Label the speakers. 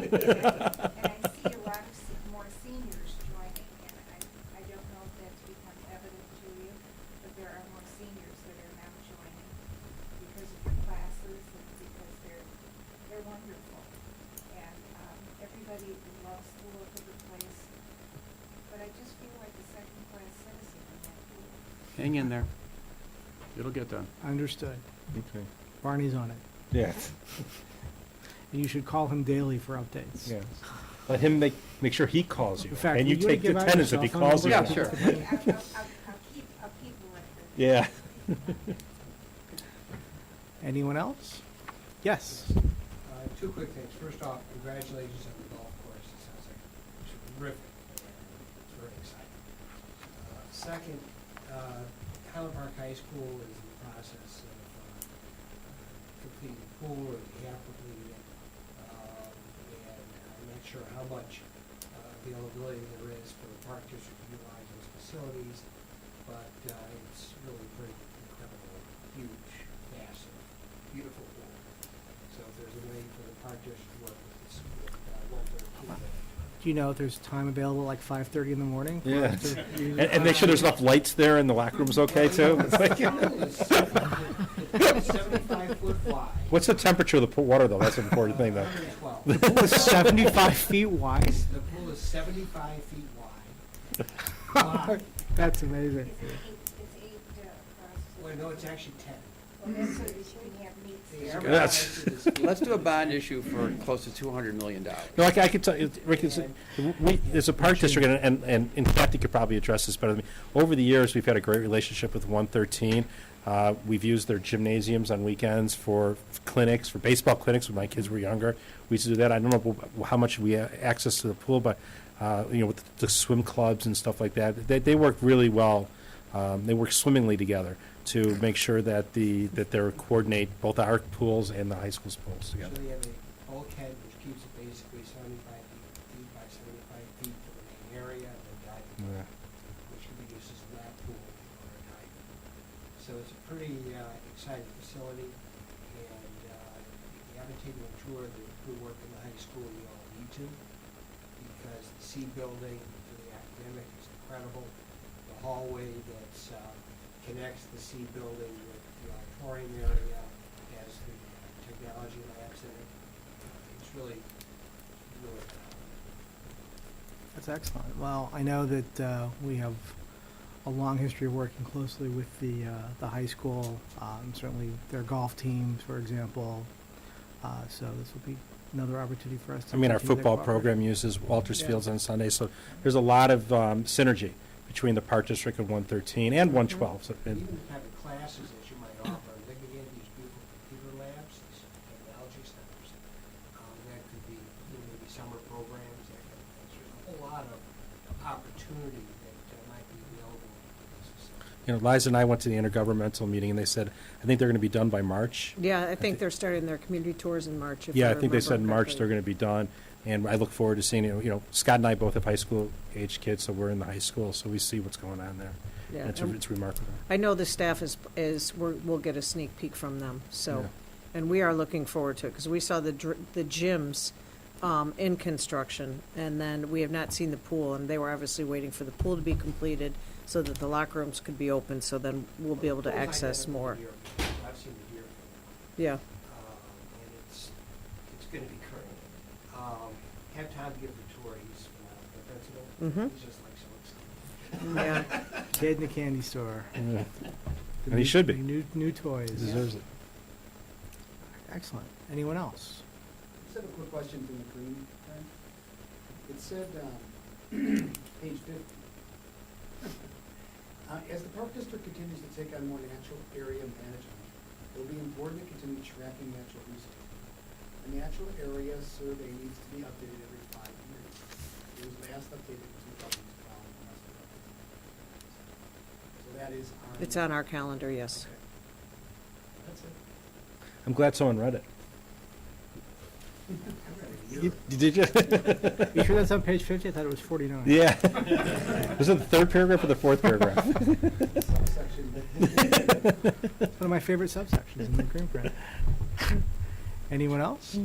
Speaker 1: And I see a lot of se- more seniors joining, and I, I don't know if that's become evident to you, but there are more seniors that are now joining because of the classes and because they're, they're wonderful. And, um, everybody loves the look of the place, but I just feel like a second-class citizen in that pool.
Speaker 2: Hang in there. It'll get done.
Speaker 3: Understood.
Speaker 4: Okay.
Speaker 3: Barney's on it.
Speaker 4: Yes,
Speaker 3: And you should call him daily for updates.
Speaker 4: yes. Let him make, make sure he calls you.
Speaker 3: In fact,
Speaker 4: And you
Speaker 3: will wanna
Speaker 4: take the
Speaker 3: give out your
Speaker 4: tenants if
Speaker 3: cell
Speaker 4: he
Speaker 3: phone
Speaker 4: calls you.
Speaker 3: number?
Speaker 2: Yeah, sure.
Speaker 1: I'll, I'll, I'll- I'll keep, I'll keep a record.
Speaker 4: Yeah.
Speaker 3: Anyone else? Yes.
Speaker 5: Uh, Two quick things. First off, congratulations on the golf course. It sounds like terrific. It's very exciting. Uh, Second, uh, Highland Park High School is in the process of uh, completing the pool, or they have completed it. Um, And I'm not sure how much uh, availability there is for the park district to utilize those facilities, but uh, it's really pretty incredible, huge, massive, beautiful pool. So if there's a way for the park district to work with the school, uh, one thirteen.
Speaker 3: Do you know if there's time available, like five thirty in the morning? for us
Speaker 4: Yeah.
Speaker 3: to use-
Speaker 4: And, and make sure there's enough lights there and the locker room's
Speaker 5: uh,
Speaker 4: okay too. It's like-
Speaker 5: Seventy-five foot wide.
Speaker 4: What's the temperature of the pool water though? That's an important thing though.
Speaker 5: Hundred and twelve.
Speaker 3: The pool is Seventy-five feet wide?
Speaker 5: The pool is seventy-five feet wide. Wide.
Speaker 3: That's amazing.
Speaker 1: Is it eight, is eight, uh, across?
Speaker 5: Well, no, it's actually ten.
Speaker 1: Well, that's so that you can have meets.
Speaker 5: The
Speaker 1: and-
Speaker 5: average
Speaker 4: That's-
Speaker 5: size of this-
Speaker 2: Let's do a bond issue for close to two hundred million dollars.
Speaker 4: No, I c- I could tell, you, Rick, it's, we, there's a park district, and, and, and in fact, you could probably address this better than me. Over the years, we've had a great relationship with one thirteen. Uh, we've used their gymnasiums on weekends for clinics, for baseball clinics when my kids were younger. We used to do that. I don't know wh- how much we have access to the pool, but, uh, you know, with the swim clubs and stuff like that, they, they work really well. Um, they work swimmingly together to make sure that the, that they're coordinate both our pools and the high school's pools
Speaker 5: So
Speaker 4: together.
Speaker 5: they have a bulkhead, which keeps it basically seventy-five feet- feet by seventy-five feet for the main area and the diving
Speaker 4: Yeah.
Speaker 5: which could be used as a lab pool or a dive. So it's a pretty uh, exciting facility, and uh, if you haven't taken a tour of the crew work in the high school, you all need to, because the C building for the academic is incredible. The hallway that's, uh, connects the C building with the auditorium area as the uh, technology labs in it. Uh, It's really, really, uh,
Speaker 3: That's excellent. Well, I know that uh, we have a long history of working closely with the, uh, the high school, um, certainly their golf teams, for example. Uh, So this will be another opportunity for us to.
Speaker 4: I mean, our
Speaker 3: continue that
Speaker 4: football
Speaker 3: cooperation.
Speaker 4: program uses Walters
Speaker 3: Yeah.
Speaker 4: Fields on Sunday, so there's a lot of um, synergy between the Park District and 113 and 112. so- and-
Speaker 5: even the type of classes that you might offer, they could get these beautiful computer labs, these technology centers. Um, that could be, you know, maybe summer programs, that kind of thing. So There's a whole lot of opportunity that uh, might be available for this facility.
Speaker 4: You know, Liza and I went to the intergovernmental meeting, and they said, I think they're going to be done by March.
Speaker 6: Yeah, I think they're starting their community tours in March, if I
Speaker 4: Yeah, I think they
Speaker 6: remember
Speaker 4: said in March
Speaker 6: correctly.
Speaker 4: they're going to be done, and I look forward to seeing, it. you know, Scott and I both have high school-age kids, so we're in the high school, so we see what's going on there.
Speaker 6: Yeah,
Speaker 4: And It's
Speaker 6: and
Speaker 4: it's remarkable.
Speaker 6: I know the staff is, is, we're- we'll get a sneak peek from them,
Speaker 4: Yeah.
Speaker 6: so, and we are looking forward to it, because we saw the, dr- the gyms um, in construction, and then we have not seen the pool, and they were obviously waiting for the pool to be completed, so that the locker rooms could be open, so then we'll be able to
Speaker 5: Schools like
Speaker 6: access
Speaker 5: that in
Speaker 6: more.
Speaker 5: Deerfield. I've seen the Deerfield.
Speaker 6: Yeah,
Speaker 5: um, and it's, it's gonna be current. Um, have Tom give the tour, he's, uh, but that's, it.
Speaker 6: Mhm.
Speaker 5: he's just like so excited.
Speaker 6: yeah.
Speaker 3: Kid in the candy store.
Speaker 4: Yeah.
Speaker 3: The
Speaker 4: And he
Speaker 3: new-
Speaker 4: should be.
Speaker 3: New, new toys.
Speaker 4: Deserves it.
Speaker 3: Excellent. Anyone else?
Speaker 7: Just have a quick question from the green, Frank. It said, um, page fifty. Uh, As the park district continues to take on more natural area management, it will be important to continue tracking natural resources. The natural area survey needs to be updated every five years. It was last updated in two thousand twelve. and that's been updated. So that is on.
Speaker 6: It's on our calendar, yes.
Speaker 7: Okay. That's it.
Speaker 4: I'm glad someone read it.
Speaker 5: I'm ready to
Speaker 4: You- Did you?
Speaker 3: You sure that's on page fifty? I thought it was forty-nine.
Speaker 4: Yeah. Was it the third paragraph or the fourth paragraph?
Speaker 7: Subsection.
Speaker 3: It's one of my favorite subsections in the green print. Anyone else?